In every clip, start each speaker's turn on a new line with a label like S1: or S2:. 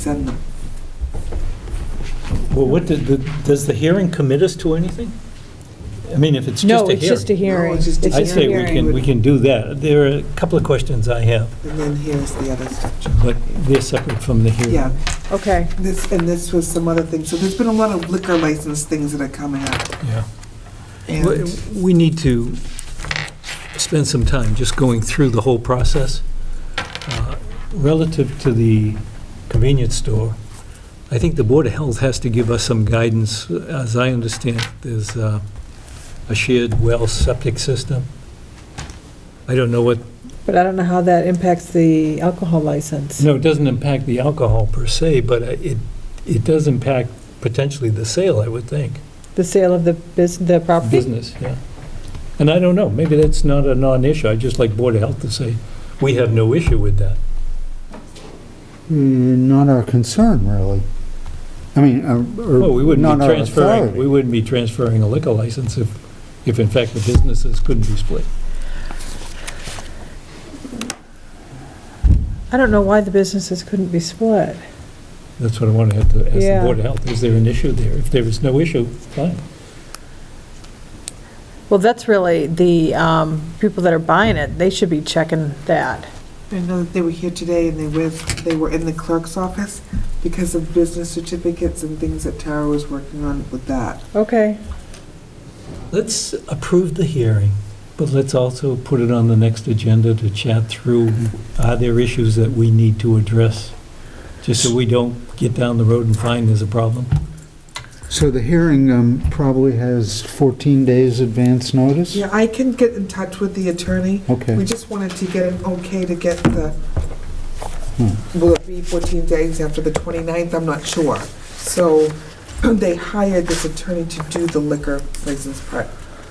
S1: send them.
S2: Well, what, did the- does the hearing commit us to anything? I mean, if it's
S3: No,
S2: just a
S3: it's just
S2: hearing.
S3: a hearing.
S1: No, it's just a
S2: I'd say we
S1: hearing.
S2: can, we can do that. There are a couple of questions I have,
S1: And then here's the other structure.
S2: but they're separate from the hearing.
S1: Yeah,
S3: Okay,
S1: this, and this was some other things. So there's been a lot of liquor license things that are coming up.
S2: Yeah. We-
S1: And
S2: We need to spend some time just going through the whole process. Uh, Relative to the convenience store, I think the Board of Health has to give us some guidance. As I understand, there's uh, a shared well septic system. I don't know what,
S3: but I don't know how that impacts the alcohol license.
S2: no, it doesn't impact the alcohol per se, but uh, it, it does impact potentially the sale, I would think.
S3: The sale of the bus, the property?
S2: business, yeah. And I don't know, maybe that's not a non-issue, I'd just like Board of Health to say, we have no issue with that.
S4: Mm, Not our concern, really. I mean, uh, or
S2: Well, we wouldn't
S4: not
S2: be
S4: our
S2: transferring, we
S4: authority.
S2: wouldn't be transferring a liquor license if, if in fact the businesses couldn't be split.
S3: I don't know why the businesses couldn't be split.
S2: That's what I want to have to ask the
S3: Yeah.
S2: Board of Health, is there an issue there? If there is no issue, fine.
S3: Well, that's really the um, people that are buying it, they should be checking that.
S1: I know that they were here today and they were, they were in the clerk's office because of business certificates and things that Tara was working on with that.
S3: Okay,
S2: Let's approve the hearing, but let's also put it on the next agenda to chat through, are there issues that we need to address? Just so we don't get down the road and find there's a problem.
S4: So the hearing um, probably has 14 days advance notice?
S1: Yeah, I can get in touch with the attorney. We
S4: Okay.
S1: just wanted to get an okay to get the,
S4: Hmm.
S1: will it be 14 days after the 29th? I'm not sure. So they hired this attorney to do the liquor license part.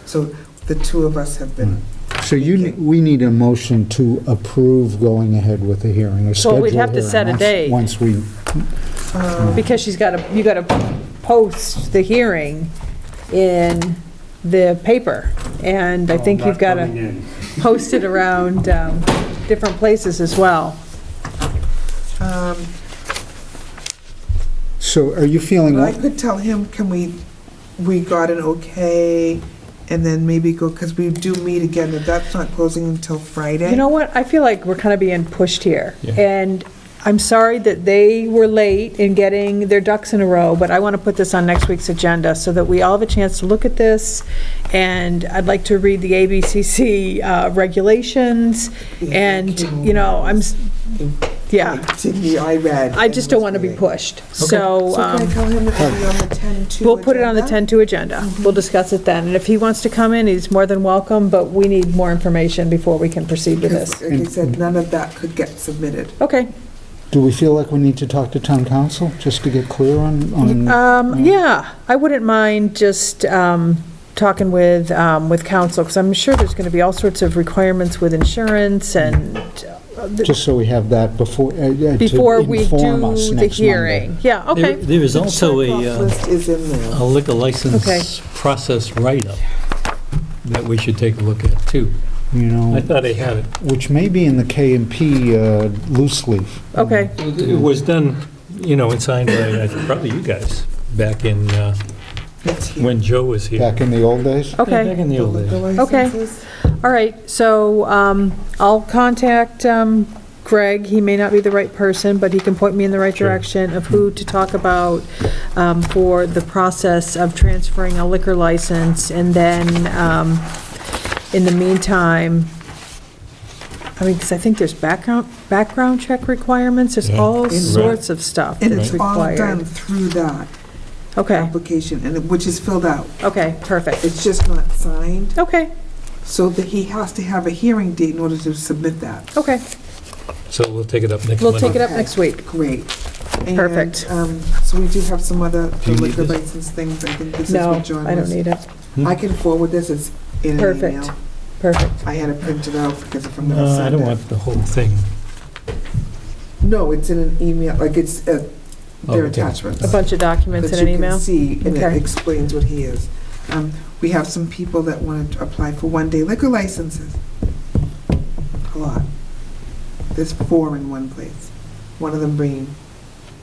S1: So the two of us have been,
S4: So you, we need a motion to approve going ahead with the hearing, or schedule
S3: Well, we'd have to
S4: hearing
S3: set a
S4: once-
S3: date.
S4: Once we, Hmm.
S1: um,
S3: because she's got to, you got to post the hearing in the paper, and I think you've got to post it around um, different places as well.
S1: um,
S4: so are you feeling,
S1: I could tell him, can we, we got an okay, and then maybe go, because we do meet again, but that's not closing until Friday.
S3: You know what, I feel like we're kind of being pushed here.
S2: Yeah.
S3: And I'm sorry that they were late in getting their ducks in a row, but I want to put this on next week's agenda so that we all have a chance to look at this. And I'd like to read the ABCC uh, regulations, and, you know, I'm, s- yeah,
S1: I read.
S3: I just don't want to be pushed. So
S1: So can I
S3: um,
S1: tell him it will be on the 10-2?
S3: we'll put it on the
S1: agenda? Mm-hmm.
S3: 10-2 agenda. We'll discuss it then. And if he wants to come in, he's more than welcome, but we need more information before we can proceed with
S1: Because,
S3: this.
S1: like I said, none of that could get submitted.
S3: Okay.
S4: do we feel like we need to talk to town council, just to get clear on, on,
S3: Um, yeah, I wouldn't mind just, um, talking with, um, with council, because I'm sure there's gonna be all sorts of requirements with insurance and uh, the-
S4: just so we have that before, uh, uh, to
S3: before we
S4: inform us
S3: do the
S4: next Monday?
S3: hearing. Yeah,
S2: There-
S3: okay,
S2: There is also
S1: Check-off
S2: a, uh,
S1: list is in there.
S2: a liquor
S3: Okay.
S2: license process write-up that we should take a look at, too.
S4: You
S2: I
S4: know,
S2: thought I had it.
S4: which may be in the K and P uh, loose leaf.
S3: okay.
S2: It was done, you know, and signed by, I think, probably you guys, back in, uh,
S1: It's here.
S2: when Joe was here.
S4: Back in the old days?
S3: Okay.
S2: Back in the
S1: The
S2: old days.
S1: liquor
S3: Okay.
S1: licenses.
S3: All right, so um, I'll contact um, Greg. He may not be the right person, but he can point me in the right
S2: Sure.
S3: direction of who to talk about um, for the process of transferring a liquor license. And then, um, in the meantime, I mean, because I think there's background, background check requirements. There's
S2: Yeah.
S3: all
S2: Right.
S3: sorts of stuff
S1: And
S3: that's
S1: it's all done
S3: required.
S1: through that
S3: Okay,
S1: application, and it- which is filled out.
S3: okay, perfect.
S1: It's just not signed,
S3: Okay,
S1: so that he has to have a hearing date in order to submit that.
S3: okay.
S2: So we'll take it up next
S3: We'll
S2: Monday.
S3: take it up next week.
S1: Great. And,
S3: Perfect.
S1: um, So we do have some other
S2: you need
S1: liquor
S2: this?
S1: license things. I think this is
S3: No,
S1: what John was.
S3: I don't need it.
S2: Hmm?
S1: I can forward this, it's in an
S3: Perfect.
S1: email.
S3: Perfect.
S1: I had it printed out because if I'm gonna
S2: No,
S1: send it.
S2: Uh, I don't want the whole thing.
S1: No, it's in an email, like it's, uh, their
S2: Oh, Okay.
S1: attachments.
S3: A bunch of documents in an email?
S1: That you can see, and
S3: Okay.
S1: it explains what he is. Um, We have some people that want to apply for one-day liquor licenses. A lot. There's four in one place. One of them bringing